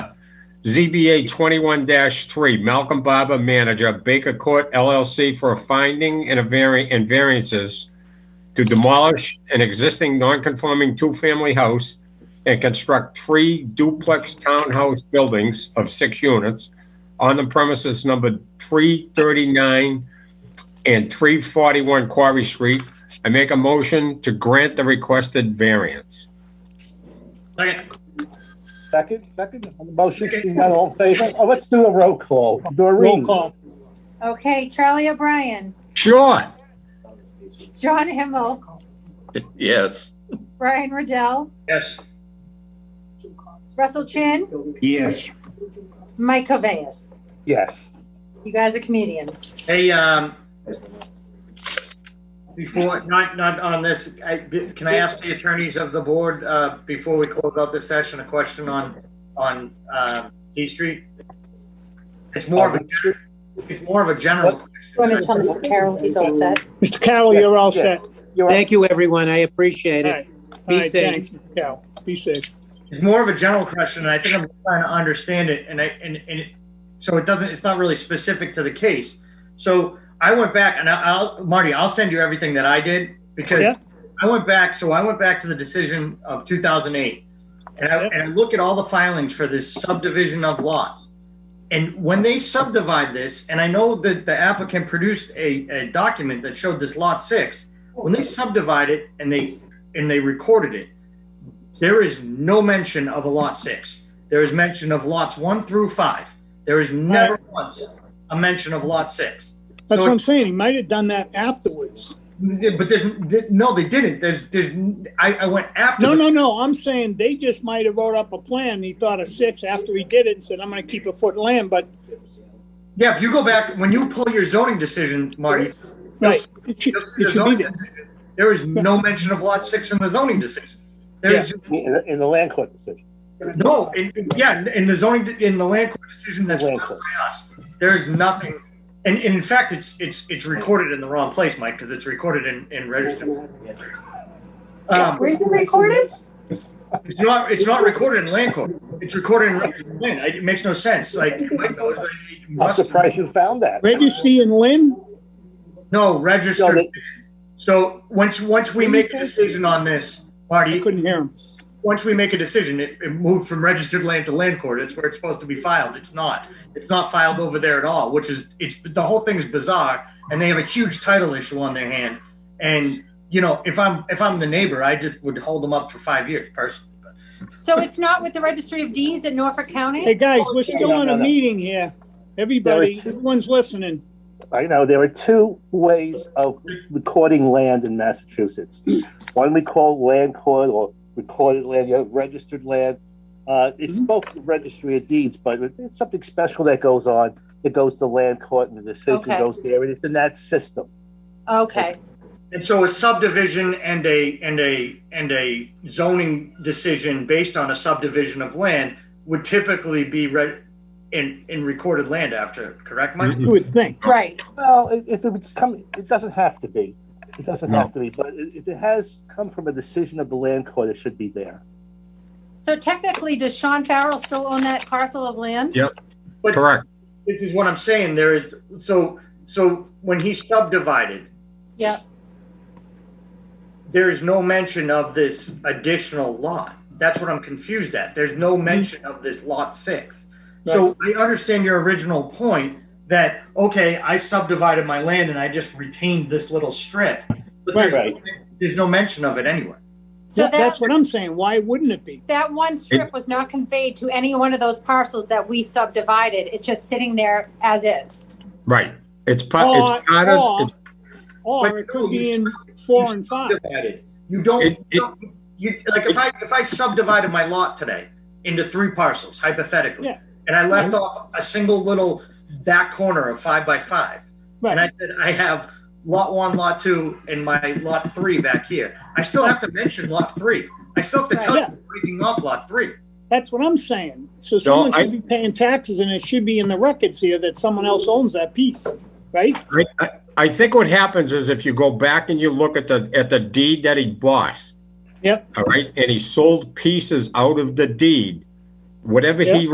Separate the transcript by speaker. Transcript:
Speaker 1: ZBA 21-3, Malcolm Barber, manager, Baker Court LLC for a finding and a vari- and variances to demolish an existing non-conforming two-family house and construct three duplex townhouse buildings of six units on the premises number 339 and 341 Quarry Street. I make a motion to grant the requested variance.
Speaker 2: Second.
Speaker 3: Second, second, on the motion, seeing none, all in favor? Oh, let's do a roll call.
Speaker 2: Roll
Speaker 3: Doreen?
Speaker 2: call.
Speaker 4: Okay, Charlie O'Brien,
Speaker 1: Sure.
Speaker 4: John Himmel,
Speaker 5: Yes.
Speaker 4: Brian Riddell,
Speaker 2: Yes.
Speaker 4: Russell Chin,
Speaker 5: Yes.
Speaker 4: Mike Cavais.
Speaker 3: Yes.
Speaker 4: You guys are comedians.
Speaker 2: Hey, um, before, not, not on this, I, can I ask the attorneys of the board, uh, before we close out this session, a question on, on, um, C Street? It's more of a, it's more of a general,
Speaker 4: Want to tell Mr. Carroll he's all set?
Speaker 6: Mr. Carroll, you're all
Speaker 3: Yeah,
Speaker 6: set.
Speaker 3: You're up.
Speaker 7: Thank you, everyone. I appreciate
Speaker 6: All
Speaker 7: it.
Speaker 6: right.
Speaker 7: Be
Speaker 6: All right,
Speaker 7: safe.
Speaker 6: thanks, Mr. Carroll. Be safe.
Speaker 2: it's more of a general question, and I think I'm trying to understand it, and I, and, and, it- so it doesn't, it's not really specific to the case. So I went back, and I- I'll, Marty, I'll send you everything that I did,
Speaker 6: Yeah.
Speaker 2: because I went back, so I went back to the decision of 2008. And I,
Speaker 6: Yeah.
Speaker 2: and I looked at all the filings for this subdivision of lot. And when they subdivide this, and I know that the applicant produced a, a document that showed this lot six, when they subdivide it and they, and they recorded it, there is no mention of a lot six. There is mention of lots one through five. There is never once a mention of lot six.
Speaker 6: That's
Speaker 2: So
Speaker 6: what
Speaker 2: it-
Speaker 6: I'm saying. He might have done that afterwards.
Speaker 2: yeah, But there's th- no, they didn't. There's, there's. I, I went after.
Speaker 6: No,
Speaker 2: the-
Speaker 6: no, no. I'm saying they just might have wrote up a plan. He thought of six after he did it and said, I'm going to keep a foot in land, but,
Speaker 2: Yeah, if you go back when you pull your zoning decision, Marty.
Speaker 6: right. It should,
Speaker 2: you'll see
Speaker 6: it
Speaker 2: the
Speaker 6: should be
Speaker 2: zoning
Speaker 6: there.
Speaker 2: decision. There is no mention of lot six in the zoning decision. There is
Speaker 3: In the- in the land court decision.
Speaker 2: no, in, yeah, in the zoning in the land court decision that's
Speaker 3: Land
Speaker 2: filed
Speaker 3: court.
Speaker 2: by us. There is nothing, and, and in fact, it's it's it's recorded in the wrong place, Mike, because it's recorded in in register. Um,
Speaker 4: Where's it recorded?
Speaker 2: It's not, it's not recorded in land court. It's recorded in register land. I- It makes no sense. Like, Mike knows, like, it
Speaker 3: I'm
Speaker 2: must-
Speaker 3: surprised you found that.
Speaker 6: Registry and Lynn?
Speaker 2: No,
Speaker 3: No,
Speaker 2: registered.
Speaker 3: they-
Speaker 2: So once, once we make a decision on this,
Speaker 6: I
Speaker 2: Marty,
Speaker 6: couldn't hear him.
Speaker 2: once we make a decision, it, it moved from registered land to land court. It's where it's supposed to be filed. It's not. It's not filed over there at all, which is, it's, the whole thing's bizarre. And they have a huge title issue on their hand. And, you know, if I'm, if I'm the neighbor, I just would hold them up for five years personally.
Speaker 4: So it's not with the Registry of Deeds in Norfolk
Speaker 6: Hey,
Speaker 4: County?
Speaker 6: guys, we're still
Speaker 3: No, no,
Speaker 6: on a
Speaker 3: no.
Speaker 6: meeting here. Everybody,
Speaker 3: There is-
Speaker 6: everyone's listening.
Speaker 3: I know, there are two ways of recording land in Massachusetts. One we call land court or recorded land, the other registered land. Uh, it's
Speaker 2: Mm-hmm.
Speaker 3: both the registry of deeds, but it's something special that goes on. It goes to land court and the decision
Speaker 4: Okay.
Speaker 3: goes there, and it's in that system.
Speaker 4: Okay,
Speaker 2: And so a subdivision and a, and a, and a zoning decision based on a subdivision of land would typically be read in, in recorded land after, correct, Mike?
Speaker 6: You would think.
Speaker 4: right.
Speaker 3: Well, i- if it's come, it doesn't have to be. It doesn't
Speaker 1: No.
Speaker 3: have to be, but i- if it has come from a decision of the land court, it should be there.
Speaker 4: So technically, does Sean Farrell still own that parcel of land?
Speaker 1: Yeah. Correct.
Speaker 2: This is what I'm saying, there is, so, so when he subdivided,
Speaker 4: Yeah.
Speaker 2: there is no mention of this additional lot. That's what I'm confused at. There's no
Speaker 3: Mm-hmm.
Speaker 2: mention of this lot six. So I understand your original point that, okay, I subdivided my land and I just retained this little strip. But there's,
Speaker 3: Right,
Speaker 2: there's no mention of it anywhere.
Speaker 4: So
Speaker 6: That- That's
Speaker 4: that,
Speaker 6: what I'm saying. Why wouldn't it be?
Speaker 4: that one strip was not conveyed to any one of those parcels that we subdivided. It's just sitting there as is.
Speaker 1: Right. It's
Speaker 6: Or-
Speaker 1: part, it's part of,
Speaker 6: or-
Speaker 1: it's
Speaker 6: Or it could be in four and five.
Speaker 2: Subdivided. You don't,
Speaker 1: It-
Speaker 2: you don't- you, like if I, if I subdivided my lot today into three parcels hypothetically,
Speaker 6: Yeah.
Speaker 2: and I left off a single little back corner of five by five,
Speaker 6: Right.
Speaker 2: And I said, I have lot one, lot two, and my lot three back here. I still have to mention lot three. I still have to tell you
Speaker 6: Yeah.
Speaker 2: I'm breaking off lot three.
Speaker 6: That's what I'm saying. So someone
Speaker 1: I-
Speaker 6: should be paying taxes and it should be in the records here that someone else owns that piece, right?
Speaker 1: I, I- I think what happens is if you go back and you look at the, at the deed that he bought.
Speaker 6: Yep.
Speaker 1: All right, and he sold pieces out of the deed. Whatever he